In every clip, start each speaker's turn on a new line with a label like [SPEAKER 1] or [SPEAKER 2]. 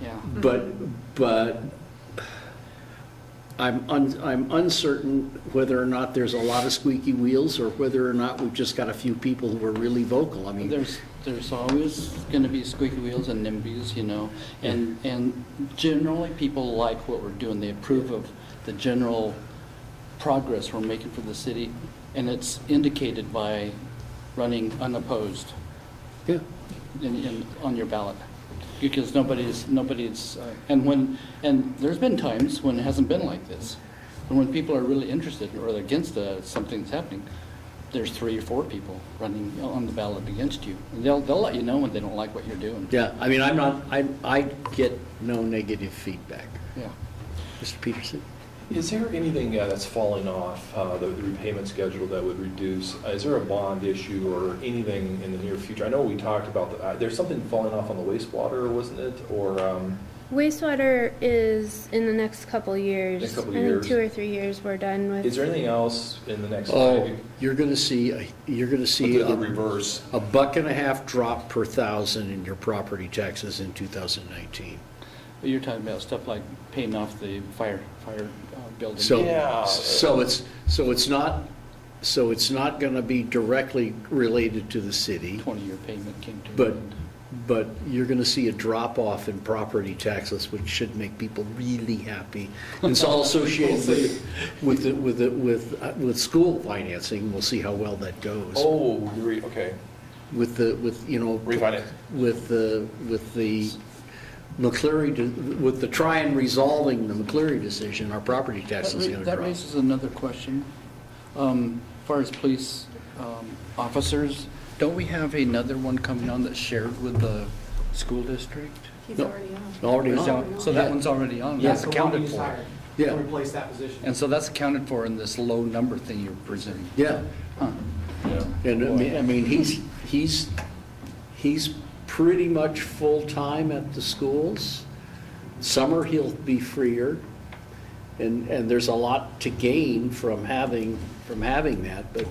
[SPEAKER 1] yeah.
[SPEAKER 2] But, but I'm, un- I'm uncertain whether or not there's a lot of squeaky wheels or whether or not we've just got a few people who are really vocal. I mean,
[SPEAKER 1] There's, there's always going to be squeaky wheels and NIMBYs, you know, and, and generally, people like what we're doing. They approve of the general progress we're making for the city, and it's indicated by running unopposed
[SPEAKER 2] yeah,
[SPEAKER 1] in, in, on your ballot. Because nobody's, nobody's, uh, and when, and there's been times when it hasn't been like this. And when people are really interested or they're against uh, something that's happening, there's three or four people running on the ballot against you. And they'll, they'll let you know when they don't like what you're doing.
[SPEAKER 2] yeah. I mean, I'm not, I, I get no negative feedback.
[SPEAKER 1] Yeah.
[SPEAKER 2] Mr. Peterson?
[SPEAKER 3] Is there anything uh, that's falling off, uh, the the repayment schedule that would reduce? uh, Is there a bond issue or anything in the near future? I know we talked about, the- uh, there's something falling off on the wastewater, wasn't it? Or, um,
[SPEAKER 4] Wastewater is in the next couple years.
[SPEAKER 3] Next couple
[SPEAKER 4] I think
[SPEAKER 3] years.
[SPEAKER 4] two or three years we're done with.
[SPEAKER 3] is there anything else in the next?
[SPEAKER 2] Oh, uh, you're going to see, a- you're going to see.
[SPEAKER 3] The the
[SPEAKER 2] a-
[SPEAKER 3] reverse.
[SPEAKER 2] a buck and a half drop per thousand in your property taxes in 2019.
[SPEAKER 1] But you're talking about stuff like paying off the fire, fire uh, building.
[SPEAKER 2] So,
[SPEAKER 3] Yeah.
[SPEAKER 2] so it's, so it's not, so it's not going to be directly related to the city,
[SPEAKER 1] Twenty-year payment came to. an
[SPEAKER 2] but,
[SPEAKER 1] end.
[SPEAKER 2] but you're going to see a drop off in property taxes, which should make people really happy. And It's all associated with, with, the- with, the- with, uh, with school financing, we'll see how well that goes.
[SPEAKER 3] Oh, you're re- okay.
[SPEAKER 2] With the, with, you know.
[SPEAKER 3] Refinance.
[SPEAKER 2] With the, with the McCleary, de- with the try and resolving the McCleary decision, our property
[SPEAKER 1] That
[SPEAKER 2] taxes
[SPEAKER 1] ra-
[SPEAKER 2] is going to
[SPEAKER 1] That
[SPEAKER 2] drop.
[SPEAKER 1] raises another question. Um, As far as police um, officers, don't we have another one coming on that's shared with the school district?
[SPEAKER 5] He's
[SPEAKER 2] No.
[SPEAKER 5] already on.
[SPEAKER 2] Already
[SPEAKER 1] Is that-
[SPEAKER 2] on.
[SPEAKER 1] So that
[SPEAKER 2] Yeah.
[SPEAKER 1] one's already on,
[SPEAKER 2] Yeah.
[SPEAKER 1] that's accounted for.
[SPEAKER 2] Yeah.
[SPEAKER 6] To replace that position.
[SPEAKER 1] And so that's accounted for in this low number thing you're presenting.
[SPEAKER 2] Yeah,
[SPEAKER 1] Huh.
[SPEAKER 3] Yeah.
[SPEAKER 2] and I mean, I mean, he's, he's, he's pretty much full-time at the schools. Summer, he'll be freer, and, and there's a lot to gain from having, from having that, but,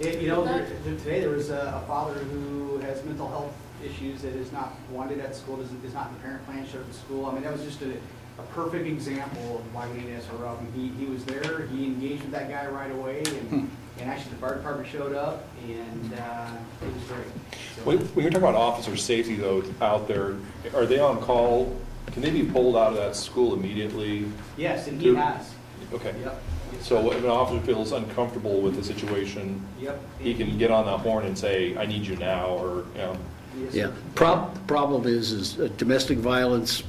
[SPEAKER 6] It- You know, there- there- today there was a a father who has mental health issues that is not wanted at school, doesn't, is not in the parent plan, showed up at school. I mean, that was just a, a perfect example of why we need SRO. I mean, He, he was there, he engaged with that guy right away,
[SPEAKER 3] Hmm.
[SPEAKER 6] and, and actually the fire department showed up, and uh, it was great. So-
[SPEAKER 3] When when you're talking about officer safety though, out there, are they on call? Can they be pulled out of that school immediately?
[SPEAKER 6] Yes, and he has.
[SPEAKER 3] Okay.
[SPEAKER 6] Yep.
[SPEAKER 3] So if an officer feels uncomfortable with the situation,
[SPEAKER 6] Yep.
[SPEAKER 3] he can get on that horn and say, I need you now, or, you know,
[SPEAKER 6] Yes, sir.
[SPEAKER 2] yeah. Prob, problem is, is a domestic violence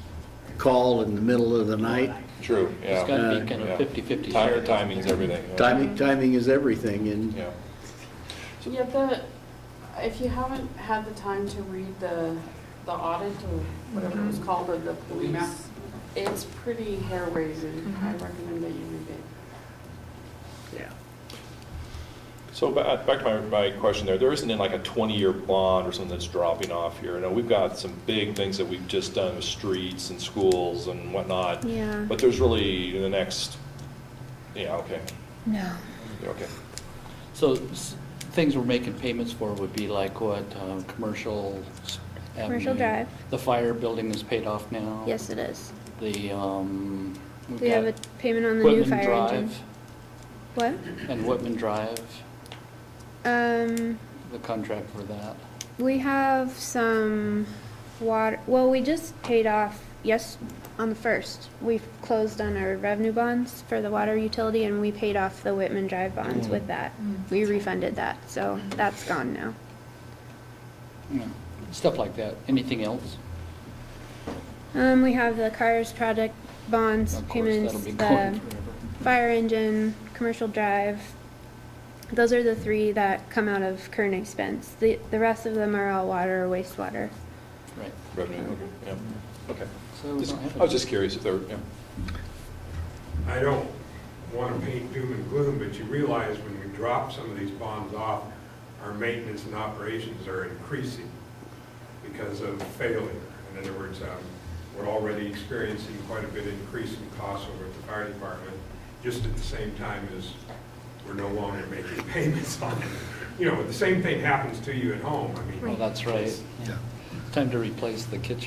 [SPEAKER 2] call in the middle of the night.
[SPEAKER 3] true, yeah.
[SPEAKER 1] It's got to be kind
[SPEAKER 3] Yeah.
[SPEAKER 1] of 50/50.
[SPEAKER 3] Time-
[SPEAKER 1] share.
[SPEAKER 3] Timing's everything. yeah.
[SPEAKER 2] Timing, timing is everything, and,
[SPEAKER 3] Yeah.
[SPEAKER 5] Yeah, the, if you haven't had the time to read the, the audit or whatever it was called of the
[SPEAKER 6] Map.
[SPEAKER 5] police, it's pretty hair raising. I recommend that you read it.
[SPEAKER 2] yeah.
[SPEAKER 3] So ba- back to my, my question there, there isn't in like a 20-year bond or something that's dropping off here. I know we've got some big things that we've just done with streets and schools and whatnot.
[SPEAKER 4] Yeah.
[SPEAKER 3] But there's really the next, yeah, okay,
[SPEAKER 4] No.
[SPEAKER 3] Yeah, okay.
[SPEAKER 1] So s- things we're making payments for would be like what, uh, commercial? s-
[SPEAKER 4] Commercial
[SPEAKER 3] Mm-hmm.
[SPEAKER 1] avenue.
[SPEAKER 4] drive.
[SPEAKER 1] The fire building is paid off now.
[SPEAKER 4] Yes, it is.
[SPEAKER 1] The, um. we've
[SPEAKER 4] We have a
[SPEAKER 1] got-
[SPEAKER 4] payment on the new
[SPEAKER 1] Whitman
[SPEAKER 4] fire engine.
[SPEAKER 1] Drive
[SPEAKER 4] What?
[SPEAKER 1] And Whitman Drive,
[SPEAKER 4] Um,
[SPEAKER 1] the contract for that.
[SPEAKER 4] we have some water, well, we just paid off, yes, on the first. We've closed on our revenue bonds for the water utility and we paid off the Whitman Drive
[SPEAKER 3] Mm.
[SPEAKER 4] bonds with that. We refunded that, so that's gone now.
[SPEAKER 1] you know, Stuff like that. Anything else?
[SPEAKER 4] Um, we have the cars project bonds
[SPEAKER 1] Of course,
[SPEAKER 4] payments,
[SPEAKER 1] that'll be
[SPEAKER 4] the
[SPEAKER 1] going forever.
[SPEAKER 4] fire engine, commercial drive. Those are the three that come out of current expense. The, the rest of them are all water or wastewater.
[SPEAKER 1] Right.
[SPEAKER 3] Revenue, okay, yeah, okay.
[SPEAKER 1] So we
[SPEAKER 3] Just-
[SPEAKER 1] don't have
[SPEAKER 3] I was
[SPEAKER 1] it.
[SPEAKER 3] just curious if there, yeah.
[SPEAKER 7] I don't want to paint doom and gloom, but you realize when we drop some of these bonds off, our maintenance and operations are increasing because of failure. In other words, um, we're already experiencing quite a bit increase in costs over at the fire department, just at the same time as we're no longer making payments on it. You know, the same thing happens to you at home. I mean,
[SPEAKER 1] Well, Oh, that's right.
[SPEAKER 2] Yeah.
[SPEAKER 1] Time to replace the kitchen.